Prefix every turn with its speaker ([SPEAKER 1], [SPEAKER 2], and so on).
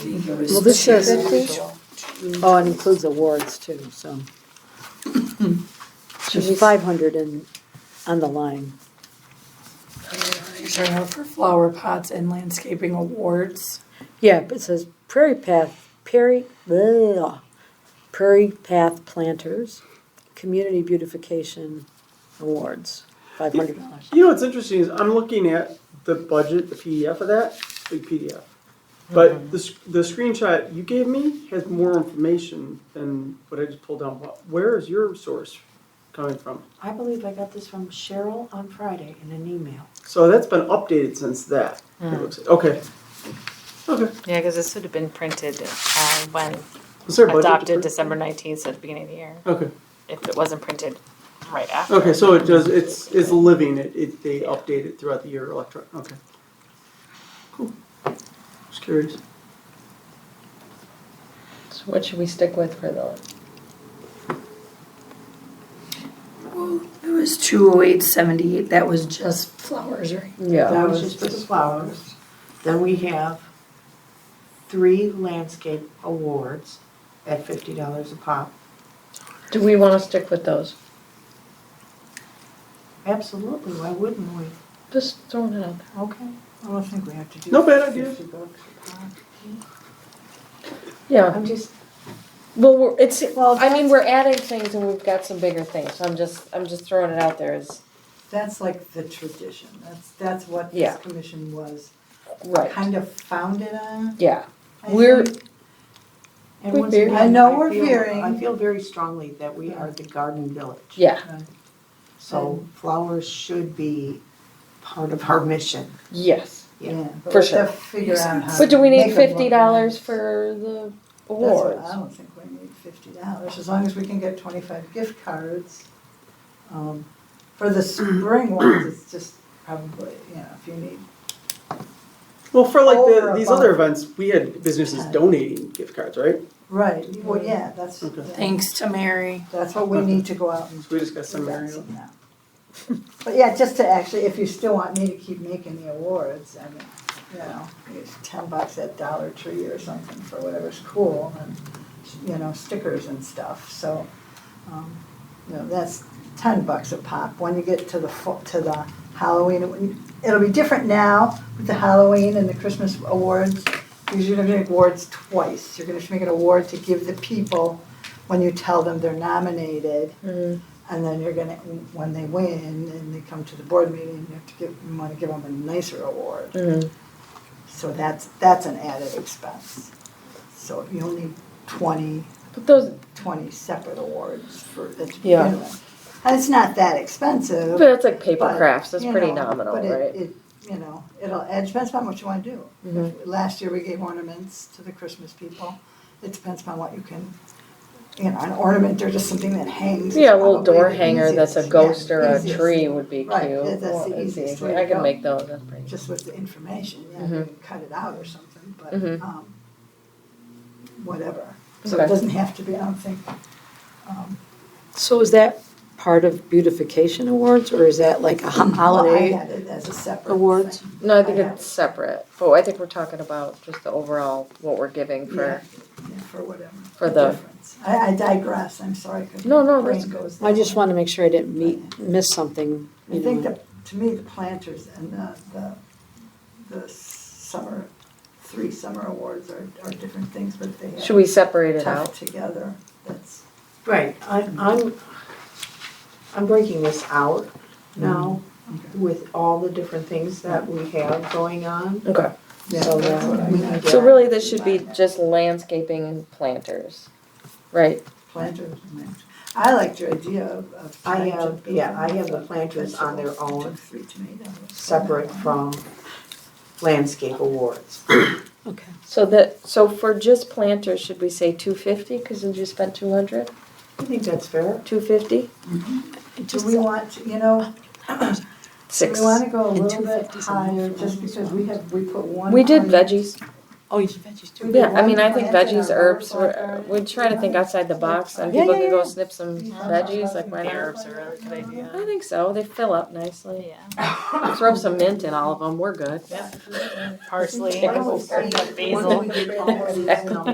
[SPEAKER 1] Well, this says- Oh, it includes awards too, so. There's five hundred in, on the line.
[SPEAKER 2] You're out for flower pots and landscaping awards.
[SPEAKER 1] Yeah, but it says Prairie Path, Prairie, blah, Prairie Path Planters, Community Beautification Awards, five hundred dollars.
[SPEAKER 3] You know what's interesting is I'm looking at the budget, the PDF of that, big PDF. But the, sc- the screenshot you gave me has more information than what I just pulled down. Wh- Where is your source coming from?
[SPEAKER 4] I believe I got this from Cheryl on Friday in an email.
[SPEAKER 3] So that's been updated since that. it looks- Okay. Okay.
[SPEAKER 5] Yeah, because this would have been printed uh, when
[SPEAKER 3] Is there a budget? to
[SPEAKER 5] adopted
[SPEAKER 3] print?
[SPEAKER 5] December 19th, so at the beginning of the year,
[SPEAKER 3] Okay,
[SPEAKER 5] if it wasn't printed right after.
[SPEAKER 3] okay, so it does, it's, it's living, it, it, they update it throughout the year electronic, okay. Cool. Just curious.
[SPEAKER 6] So what should we stick with for the?
[SPEAKER 2] Well, there was two oh eight seventy-eight, that was just flowers, right?
[SPEAKER 4] That was just for the flowers. Then we have three landscape awards at fifty dollars a pop.
[SPEAKER 6] Do we wanna stick with those?
[SPEAKER 4] Absolutely, why wouldn't we?
[SPEAKER 6] Just throwing it out there.
[SPEAKER 4] Okay, I don't think we have to do.
[SPEAKER 3] No bad idea.
[SPEAKER 4] 50 bucks a pop.
[SPEAKER 6] Yeah,
[SPEAKER 4] I'm just,
[SPEAKER 6] well, we're, it's, I mean, we're adding things and we've got some bigger things, so I'm just, I'm just throwing it out there as,
[SPEAKER 7] That's like the tradition, that's, that's what
[SPEAKER 6] Yeah.
[SPEAKER 7] this commission was
[SPEAKER 6] right,
[SPEAKER 7] kind of founded on.
[SPEAKER 6] yeah.
[SPEAKER 7] I
[SPEAKER 6] We're,
[SPEAKER 7] think.
[SPEAKER 4] and
[SPEAKER 6] We
[SPEAKER 4] once
[SPEAKER 6] veered.
[SPEAKER 4] again,
[SPEAKER 7] I know we're
[SPEAKER 4] feel-
[SPEAKER 7] veering.
[SPEAKER 4] I feel very strongly that we are the garden village.
[SPEAKER 6] yeah,
[SPEAKER 4] So flowers should be part of our mission.
[SPEAKER 6] yes.
[SPEAKER 7] Yeah.
[SPEAKER 6] For
[SPEAKER 7] but
[SPEAKER 6] sure.
[SPEAKER 7] to Figure out how.
[SPEAKER 6] But do we
[SPEAKER 7] to
[SPEAKER 6] need
[SPEAKER 7] make 'em look
[SPEAKER 6] fifty dollars
[SPEAKER 7] nice.
[SPEAKER 6] for the
[SPEAKER 7] That's what-
[SPEAKER 6] awards?
[SPEAKER 7] I don't think we need fifty dollars, as long as we can get twenty-five gift cards. Um, For the spring ones, it's just probably, you know, if you need
[SPEAKER 3] Well, for like the,
[SPEAKER 7] Over
[SPEAKER 3] these
[SPEAKER 7] above.
[SPEAKER 3] other events, we had businesses donating gift cards, right?
[SPEAKER 7] Right, well, yeah, that's,
[SPEAKER 3] Okay.
[SPEAKER 2] Thanks to Mary.
[SPEAKER 7] that's what we need to go out and.
[SPEAKER 3] So we just got some
[SPEAKER 7] do that
[SPEAKER 3] Mario.
[SPEAKER 7] somehow. But yeah, just to actually, if you still want me to keep making the awards, I mean, you know, it's ten bucks at Dollar Tree or something for whatever's cool and, you know, stickers and stuff, so, um, you know, that's ten bucks a pop. When you get to the fu- to the Halloween, it wouldn't- it'll be different now with the Halloween and the Christmas awards. Because you're gonna make awards twice. You're gonna make an award to give the people when you tell them they're nominated. And then you're gonna, when they win and they come to the board meeting, you have to give, you wanna give them a nicer award. So that's, that's an added expense. So you only need twenty
[SPEAKER 6] But those,
[SPEAKER 7] 20 separate awards for, that to
[SPEAKER 6] Yeah.
[SPEAKER 7] begin with. And it's not that expensive.
[SPEAKER 6] but that's like paper
[SPEAKER 7] but,
[SPEAKER 6] crafts, that's
[SPEAKER 7] you
[SPEAKER 6] pretty
[SPEAKER 7] know,
[SPEAKER 6] nominal,
[SPEAKER 7] but it-
[SPEAKER 6] right?
[SPEAKER 7] it, You know, it'll, it depends upon what you want to do. If-
[SPEAKER 6] Mm-hmm.
[SPEAKER 7] Last year, we gave ornaments to the Christmas people. It depends upon what you can, you know, an ornament or just something that hangs. is
[SPEAKER 6] Yeah, a little
[SPEAKER 7] probably
[SPEAKER 6] door
[SPEAKER 7] the
[SPEAKER 6] hanger that's a
[SPEAKER 7] easiest.
[SPEAKER 6] ghost
[SPEAKER 7] Yeah,
[SPEAKER 6] or a
[SPEAKER 7] easiest.
[SPEAKER 6] tree would be cute.
[SPEAKER 7] Right, that- that's
[SPEAKER 6] Well,
[SPEAKER 7] the
[SPEAKER 6] it's
[SPEAKER 7] easiest
[SPEAKER 6] easy.
[SPEAKER 7] way to
[SPEAKER 6] I
[SPEAKER 7] go.
[SPEAKER 6] can make those, that's pretty.
[SPEAKER 7] Just with the information, yeah,
[SPEAKER 6] Mhm.
[SPEAKER 7] you can cut it out or something, but,
[SPEAKER 6] Mhm.
[SPEAKER 7] um, whatever. So it
[SPEAKER 6] Okay.
[SPEAKER 7] doesn't have to be, I don't think, um,
[SPEAKER 1] So is that part of beautification awards, or is that like a ho-
[SPEAKER 7] Well, I
[SPEAKER 1] holiday?
[SPEAKER 7] had it as a separate
[SPEAKER 1] awards?
[SPEAKER 7] thing.
[SPEAKER 6] No, I think
[SPEAKER 7] I know.
[SPEAKER 6] it's separate, but I think we're talking about just the overall, what we're giving
[SPEAKER 7] Yeah,
[SPEAKER 6] for,
[SPEAKER 7] yeah, for whatever.
[SPEAKER 6] For the-
[SPEAKER 7] difference. I, I digress, I'm sorry. 'cause
[SPEAKER 6] No, no,
[SPEAKER 7] my brain
[SPEAKER 6] that's good.
[SPEAKER 7] goes
[SPEAKER 1] I
[SPEAKER 7] there.
[SPEAKER 1] just want to make sure I didn't meet, miss something,
[SPEAKER 7] I
[SPEAKER 1] you
[SPEAKER 7] think
[SPEAKER 1] know.
[SPEAKER 7] that, to me, the planters and the, the, the summer, three summer awards are, are different things, but they
[SPEAKER 6] should
[SPEAKER 7] are
[SPEAKER 6] we separate it
[SPEAKER 7] tough
[SPEAKER 6] out?
[SPEAKER 7] together. That's,
[SPEAKER 4] Right, I, I'm, I'm breaking this out now
[SPEAKER 6] Mm-hmm.
[SPEAKER 7] Okay.
[SPEAKER 4] with all the different things that we have going on.
[SPEAKER 6] Okay,
[SPEAKER 7] yeah,
[SPEAKER 4] So
[SPEAKER 7] that's what I
[SPEAKER 4] we-
[SPEAKER 7] meant.
[SPEAKER 6] so really this should be
[SPEAKER 7] Yeah.
[SPEAKER 6] just landscaping and planters, right?
[SPEAKER 7] Planters, and- I liked your idea of, of.
[SPEAKER 4] I have-
[SPEAKER 7] planter being
[SPEAKER 4] yeah, I have the planters on their
[SPEAKER 7] vegetables,
[SPEAKER 4] own,
[SPEAKER 7] Three tomatoes.
[SPEAKER 4] Separate from landscape awards.
[SPEAKER 1] Okay.
[SPEAKER 6] So that, so for just planters, should we say two fifty, cause then you spent two hundred,
[SPEAKER 4] I think that's fair.
[SPEAKER 6] two fifty?
[SPEAKER 7] Do we want, to- you know, do
[SPEAKER 6] Six.
[SPEAKER 7] we wanna go a
[SPEAKER 1] And
[SPEAKER 7] little bit
[SPEAKER 1] 250 is enough
[SPEAKER 7] higher,
[SPEAKER 1] for
[SPEAKER 7] just
[SPEAKER 1] those
[SPEAKER 7] because we have, we put one.
[SPEAKER 6] We did
[SPEAKER 7] ornament-
[SPEAKER 6] veggies,
[SPEAKER 1] Oh, you-
[SPEAKER 6] Yeah, I mean, I think veggies, herbs, we're, we're trying to think outside the box and
[SPEAKER 1] Yeah,
[SPEAKER 6] people
[SPEAKER 1] yeah,
[SPEAKER 6] could go
[SPEAKER 1] yeah.
[SPEAKER 6] snip some
[SPEAKER 7] Yeah.
[SPEAKER 6] veggies, like why not?
[SPEAKER 5] Herbs are a really good
[SPEAKER 6] I
[SPEAKER 5] idea.
[SPEAKER 6] think so, they fill up nicely.
[SPEAKER 5] Yeah.
[SPEAKER 6] Throw some mint in all of them, we're good.
[SPEAKER 5] Parsley,
[SPEAKER 7] Pickles.
[SPEAKER 5] basil.
[SPEAKER 7] Basil.